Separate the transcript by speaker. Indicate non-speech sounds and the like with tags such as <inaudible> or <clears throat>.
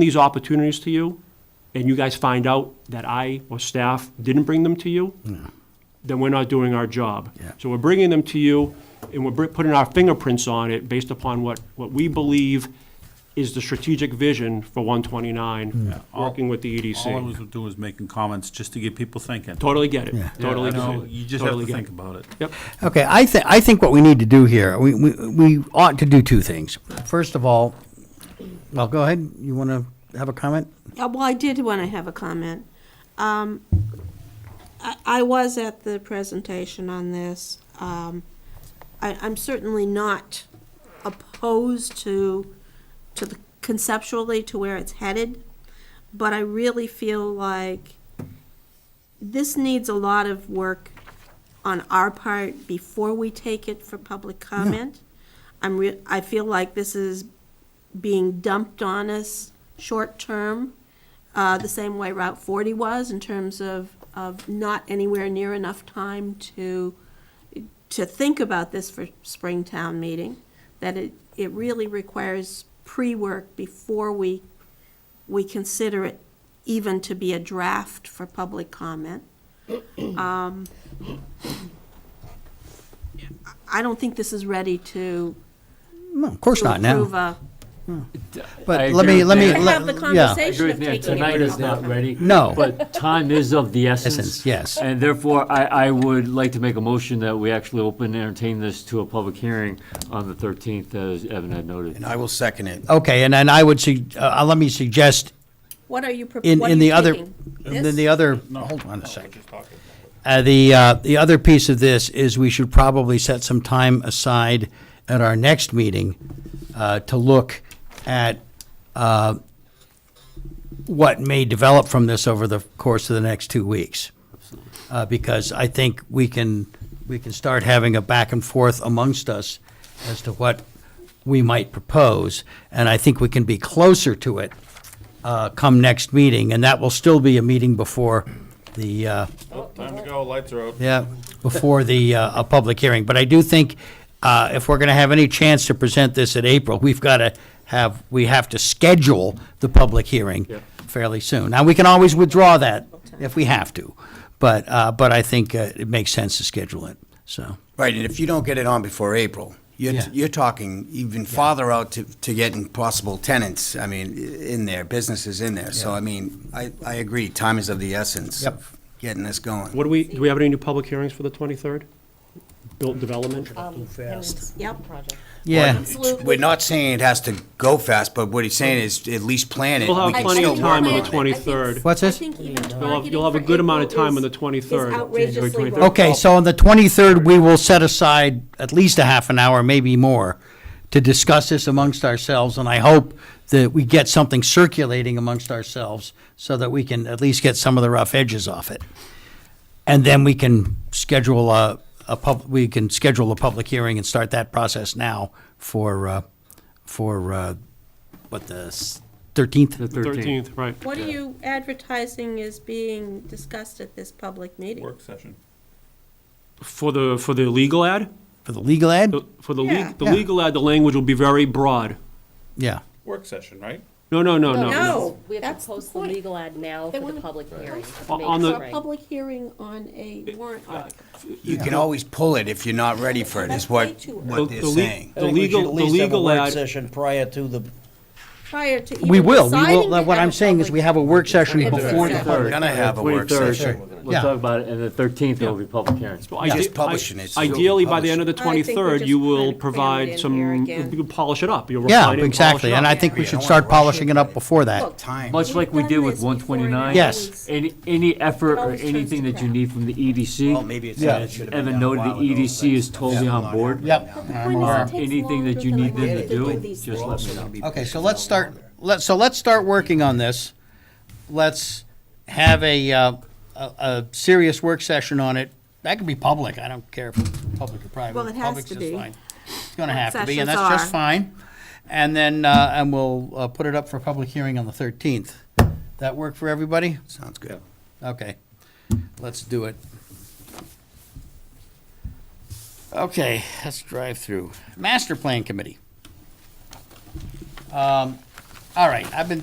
Speaker 1: these opportunities to you, and you guys find out that I or staff didn't bring them to you, then we're not doing our job.
Speaker 2: Yeah.
Speaker 1: So we're bringing them to you, and we're br- putting our fingerprints on it based upon what, what we believe is the strategic vision for
Speaker 2: Mm.
Speaker 1: 129, working with the E
Speaker 3: All I was
Speaker 1: EDC.
Speaker 3: doing was making comments just to get people thinking.
Speaker 1: Totally get it,
Speaker 2: Yeah.
Speaker 1: totally
Speaker 3: I
Speaker 1: get
Speaker 3: know,
Speaker 1: it.
Speaker 3: You just have
Speaker 1: Totally
Speaker 3: to
Speaker 1: get
Speaker 3: think
Speaker 1: it.
Speaker 3: about it.
Speaker 1: Yep,
Speaker 2: Okay, I think, I think what we need to do here, we, we, we ought to do two things. First of all, well, go ahead, you want to have a comment?
Speaker 4: Uh, Well, I did want to have a comment. Um, I I was at the presentation on this. Um, I- I'm certainly not opposed to, to the conceptually to where it's headed, but I really feel like this needs a lot of work on our part before we take it for public comment. I'm re, I feel like this is being dumped on us short-term, uh, the same way Route 40 was in terms of, of not anywhere near enough time to, to think about this for spring town meeting, that it, it really requires pre-work before we, we consider it even to be a draft for
Speaker 2: <clears throat>
Speaker 4: public comment. Um, I don't think this is ready to.
Speaker 2: No, of course
Speaker 4: to
Speaker 2: not now.
Speaker 4: approve a-
Speaker 5: I
Speaker 2: But let me,
Speaker 5: agree
Speaker 2: let me,
Speaker 5: with
Speaker 4: to
Speaker 5: Nan.
Speaker 2: let-
Speaker 4: have the
Speaker 2: yeah.
Speaker 5: I
Speaker 4: conversation
Speaker 5: agree with
Speaker 4: of
Speaker 5: Nan,
Speaker 4: taking it
Speaker 5: tonight
Speaker 4: to
Speaker 5: is not
Speaker 4: public.
Speaker 5: ready.
Speaker 2: No.
Speaker 5: But time is of the essence.
Speaker 2: Essence, yes.
Speaker 5: And therefore, I, I would like to make a motion that we actually open and entertain this to a public hearing on the 13th, as Evan had noted.
Speaker 6: I will second it.
Speaker 2: okay, and then I would, sug- uh, let me suggest
Speaker 4: What are you, prop-
Speaker 2: in,
Speaker 4: what are
Speaker 2: in the
Speaker 4: you
Speaker 2: other,
Speaker 4: taking?
Speaker 2: and
Speaker 4: This?
Speaker 2: then the other, hold on a second. Uh, the, uh, the other piece of this is we should probably set some time aside at our next meeting, uh, to look at, uh, what may develop from this over the course of the next two weeks. Uh, because I think we can, we can start having a back and forth amongst us as to what we might propose. And I think we can be closer to it, uh, come next meeting, and that will still be a meeting before the, uh,
Speaker 7: Time to go, lights are out.
Speaker 2: yeah, before the, uh, a public hearing. But I do think, uh, if we're gonna have any chance to present this in April, we've gotta have, we have to schedule the public hearing fairly soon. Now, we can always withdraw that if we have to, but, uh, but I think uh, it makes sense to schedule it, so.
Speaker 6: Right, and if you don't get it on before April, you're,
Speaker 2: Yeah.
Speaker 6: you're talking even farther out to, to getting possible tenants, I mean, i- in there, businesses in there. So, I mean, I, I agree, time is of the essence
Speaker 2: Yep.
Speaker 6: of getting this going.
Speaker 1: what do we, do we have any new public hearings for the 23rd? Built development?
Speaker 4: Uh,
Speaker 8: Um,
Speaker 4: Yep.
Speaker 2: Yeah,
Speaker 4: Absolutely.
Speaker 6: We're not saying it has to go fast, but what he's saying is at least plan it.
Speaker 1: We'll have
Speaker 6: We can
Speaker 1: plenty
Speaker 6: still
Speaker 1: of time
Speaker 6: work
Speaker 1: on the
Speaker 6: it.
Speaker 1: 23rd.
Speaker 2: What's this?
Speaker 1: You'll have, you'll have a good amount of time on the 23rd.
Speaker 4: outrageously
Speaker 1: January
Speaker 4: low.
Speaker 1: 23rd.
Speaker 2: Okay, so on the 23rd, we will set aside at least a half an hour, maybe more, to discuss this amongst ourselves, and I hope that we get something circulating amongst ourselves so that we can at least get some of the rough edges off it. And then we can schedule a, a pub, we can schedule a public hearing and start that process now for, uh, for, uh, what, the s- 13th?
Speaker 5: The 13th.
Speaker 1: 13th, right.
Speaker 4: What are you advertising is being discussed at this public meeting?
Speaker 7: Work session.
Speaker 1: For the, for the legal ad?
Speaker 2: For the legal ad?
Speaker 1: The- For the
Speaker 4: Yeah.
Speaker 1: legal, the
Speaker 2: Yeah.
Speaker 1: legal ad, the language will be very broad.
Speaker 2: Yeah.
Speaker 7: Work session, right?
Speaker 1: No, no, no, no, no.
Speaker 4: Oh, No,
Speaker 8: We have
Speaker 4: that's
Speaker 8: to
Speaker 4: the
Speaker 8: post the
Speaker 4: point.
Speaker 8: legal ad now
Speaker 4: They
Speaker 8: for
Speaker 4: wanna
Speaker 8: the public hearing.
Speaker 1: On-
Speaker 8: Make
Speaker 1: on
Speaker 8: it
Speaker 1: the-
Speaker 4: For a
Speaker 8: right.
Speaker 4: public hearing on a warrant
Speaker 5: Uh,
Speaker 4: article.
Speaker 6: You can always pull it if you're not ready for it, is what,
Speaker 4: That's way too
Speaker 6: what
Speaker 1: The-
Speaker 6: they're
Speaker 1: the le-
Speaker 6: saying.
Speaker 1: The legal, the legal ad,
Speaker 9: session prior to the.
Speaker 4: Prior to even
Speaker 2: We will, we
Speaker 4: deciding to
Speaker 2: will, what
Speaker 4: have
Speaker 2: I'm
Speaker 4: a
Speaker 2: saying is
Speaker 4: public
Speaker 2: we have a work session
Speaker 4: Exactly.
Speaker 2: before the
Speaker 4: Exactly.
Speaker 6: We're gonna have a work
Speaker 5: 23rd.
Speaker 6: session.
Speaker 2: Yeah.
Speaker 5: We'll talk about it, and the 13th, there will be public hearing.
Speaker 1: Well, ide-
Speaker 6: Just publishing it, so we can
Speaker 1: Ideally, by the
Speaker 6: publish
Speaker 1: end of the
Speaker 4: I think we're
Speaker 1: 23rd,
Speaker 4: just
Speaker 1: you
Speaker 4: kind
Speaker 1: will
Speaker 4: of crammed in
Speaker 1: provide
Speaker 4: here
Speaker 1: some,
Speaker 4: again.
Speaker 1: you'll polish it up. You'll
Speaker 2: Yeah,
Speaker 1: refine it and polish
Speaker 2: exactly,
Speaker 1: it
Speaker 2: and
Speaker 1: up.
Speaker 2: I think we
Speaker 6: Yeah,
Speaker 2: should
Speaker 6: don't
Speaker 2: start
Speaker 6: wanna rush
Speaker 2: polishing
Speaker 6: it,
Speaker 2: it up
Speaker 6: but-
Speaker 2: before that.
Speaker 4: Look,
Speaker 6: Time.
Speaker 5: Much like we
Speaker 4: We've
Speaker 5: did
Speaker 4: done
Speaker 5: with
Speaker 4: this before and it
Speaker 5: 129.
Speaker 2: Yes.
Speaker 5: Any, any effort or
Speaker 4: always turns
Speaker 5: anything
Speaker 4: to
Speaker 5: that you
Speaker 4: crap.
Speaker 5: need from the E EDC.
Speaker 6: Well, maybe it's.
Speaker 2: Yeah.
Speaker 6: it should've been
Speaker 5: Evan
Speaker 6: done a
Speaker 5: noted the
Speaker 6: while
Speaker 1: E
Speaker 6: ago,
Speaker 5: EDC
Speaker 6: but
Speaker 5: is totally
Speaker 6: yeah,
Speaker 5: on
Speaker 6: not
Speaker 5: board.
Speaker 6: now.
Speaker 2: Yep.
Speaker 5: Or anything that you need them to do,
Speaker 6: We're
Speaker 5: just let
Speaker 6: also
Speaker 5: me know.
Speaker 6: gonna be
Speaker 2: Okay, so
Speaker 6: pushing
Speaker 2: let's
Speaker 6: it
Speaker 2: start,
Speaker 6: longer.
Speaker 2: let, so let's start working on this. Let's have a, uh, a, a serious work session on it. That could be public, I don't care if it's public or private.
Speaker 4: Well, it has
Speaker 2: Public's
Speaker 4: to
Speaker 2: just
Speaker 4: be.
Speaker 2: fine. It's gonna
Speaker 4: Work
Speaker 2: have to be, and
Speaker 4: sessions
Speaker 2: that's just
Speaker 4: are.
Speaker 2: fine. And then, uh, and we'll, uh, put it up for public hearing on the thirteenth. That work for everybody?
Speaker 6: Sounds good.
Speaker 2: Okay, let's do it. Okay, let's drive through. Master Plan Committee. Um, All right, I've been